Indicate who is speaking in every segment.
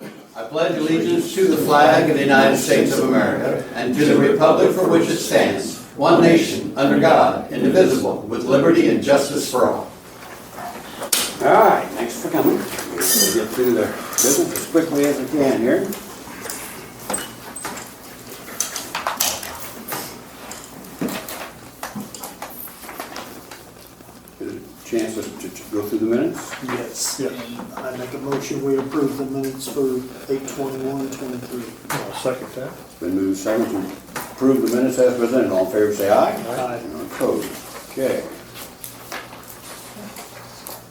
Speaker 1: pledge allegiance to the flag of the United States of America and to the republic for which it stands, one nation, under God, indivisible, with liberty and justice for all.
Speaker 2: All right, thanks for coming. We'll get through the business as quickly as we can here. Chance to to- to go through the minutes?
Speaker 3: Yes, and I make a motion, we approve the minutes for eight twenty-one, twenty-three.
Speaker 4: I'll second that.
Speaker 2: Been moved second to approve the minutes as presented. All in favor, say aye.
Speaker 3: Aye.
Speaker 2: Anyone Opposed? Okay.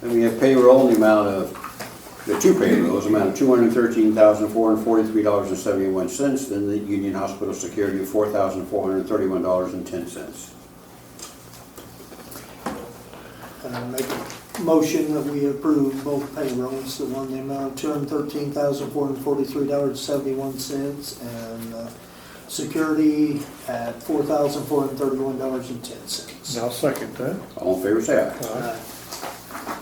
Speaker 2: Then we have payroll in the amount of, the two payrolls, amount of two hundred and thirteen thousand, four hundred and forty-three dollars and seventy-one cents. Then the Union Hospital Security, four thousand, four hundred and thirty-one dollars and ten cents.
Speaker 3: And I make a motion that we approve both payrolls, the one the amount of two hundred thirteen thousand, four hundred forty-three dollars, seventy-one cents, and, uh, security at four thousand, four hundred thirty-one dollars and ten cents.
Speaker 4: I'll second that.
Speaker 2: All in favor, say aye.
Speaker 4: Aye.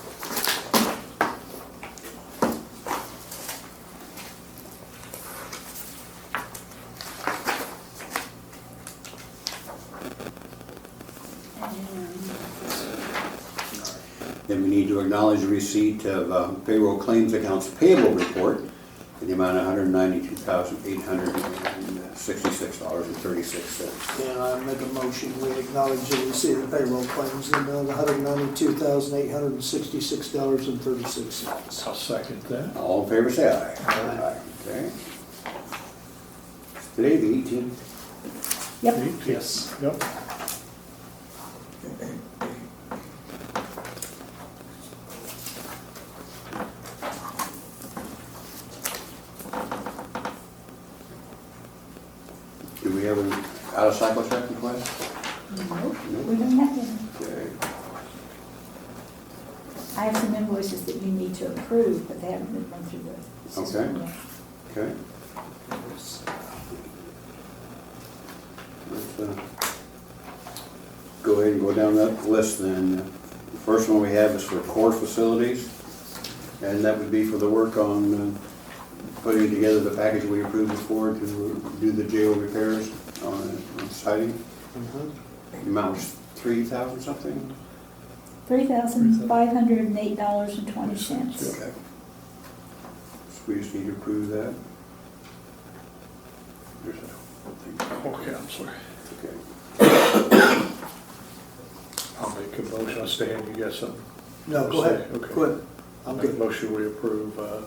Speaker 2: Then we need to acknowledge receipt of uh, payroll claims accounts payable report in the amount of $192,866.36.
Speaker 3: And I make a motion, we acknowledge and receive the payroll claims in the amount of one hundred ninety-two thousand, eight hundred and sixty-six dollars and thirty-six cents.
Speaker 4: I'll second that.
Speaker 2: All in favor, say aye.
Speaker 3: Aye.
Speaker 2: Okay. Today, the 18th,
Speaker 4: Eight,
Speaker 3: Yes.
Speaker 4: Yep.
Speaker 2: do we have an out-of-cycle check request?
Speaker 5: No,
Speaker 2: No.
Speaker 5: we don't have to.
Speaker 2: Okay.
Speaker 5: I have some invoices that you need to approve, but they haven't been run through the system
Speaker 2: Okay.
Speaker 5: yet.
Speaker 2: Okay. Let's uh, Go ahead and go down that list then. The first one we have is for core facilities, and that would be for the work on uh, putting together the package we approved before to do the jail repairs on on siding.
Speaker 3: Mhm.
Speaker 2: The Amount was three thousand something?
Speaker 5: Three thousand five hundred and eight dollars and twenty cents.
Speaker 2: Okay. So we just need to approve that. There's a thing.
Speaker 4: Okay, I'm sorry.
Speaker 2: Okay.
Speaker 4: I'll make a motion. I stand. You got something?
Speaker 3: No, go ahead,
Speaker 4: Okay.
Speaker 3: go ahead. I'm
Speaker 4: Make a
Speaker 3: good.
Speaker 4: motion we approve uh,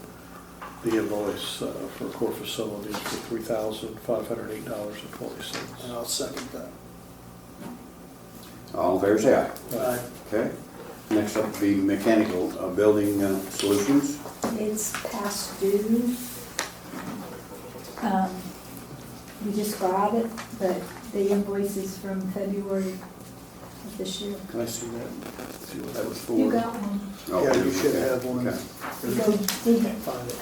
Speaker 4: the invoice uh, for core facilities for three thousand five hundred eight dollars and twenty cents.
Speaker 3: And I'll second that.
Speaker 2: All in favor, say aye.
Speaker 3: Aye.
Speaker 2: Okay, next up would be mechanical uh, building uh, solutions.
Speaker 5: It's past due. Um, We just got it, but the invoice is from February of this year.
Speaker 2: Can I see that? See what that was for?
Speaker 5: You got one.
Speaker 2: Oh,
Speaker 3: Yeah, you should
Speaker 2: okay,
Speaker 3: have one.
Speaker 2: okay.
Speaker 5: You go dig it.
Speaker 3: Find it.